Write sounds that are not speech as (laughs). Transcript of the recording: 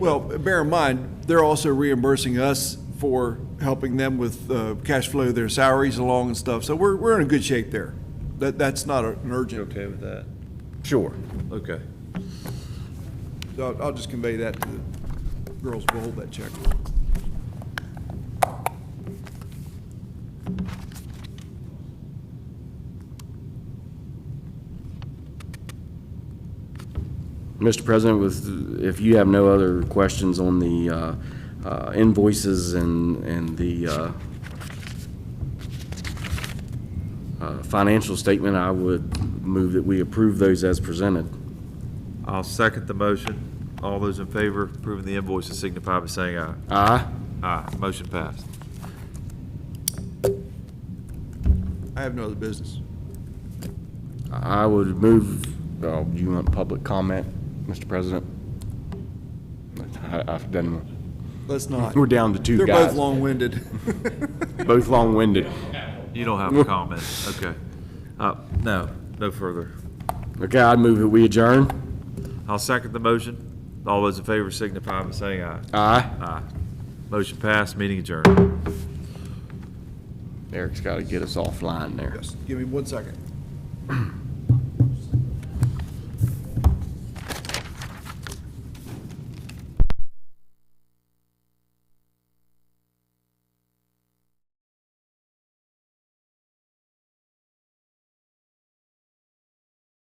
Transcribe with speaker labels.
Speaker 1: Well, bear in mind, they're also reimbursing us for helping them with uh, cash flow, their salaries along and stuff. So we're, we're in a good shape there. That, that's not an
Speaker 2: You
Speaker 1: urgent,
Speaker 2: okay with that?
Speaker 3: Sure.
Speaker 2: Okay.
Speaker 1: so I'll- I'll just convey that to the girls, we'll hold that check.
Speaker 3: Mr. President, with, if you have no other questions on the uh, uh, invoices and, and the uh, uh, financial statement, I would move that we approve those as presented.
Speaker 2: I'll second the motion. All those in favor of approving the invoices signify by saying aye.
Speaker 3: Aye?
Speaker 2: Aye, motion passed.
Speaker 1: I have no other business.
Speaker 3: I would move, oh, you want public comment, Mr. President? I, I've done,
Speaker 1: Let's not.
Speaker 3: we're down to two
Speaker 1: They're both
Speaker 3: guys,
Speaker 1: long-winded.
Speaker 3: (laughs) both long-winded.
Speaker 2: You don't have a comment, okay. Uh, no, no further.
Speaker 3: Okay, I'd move that we adjourn.
Speaker 2: I'll second the motion. All those in favor signify by saying aye.
Speaker 3: Aye?
Speaker 2: Aye. Motion passed, meeting adjourned.
Speaker 3: Eric's gotta get us offline there.
Speaker 1: Yes, Give me one second.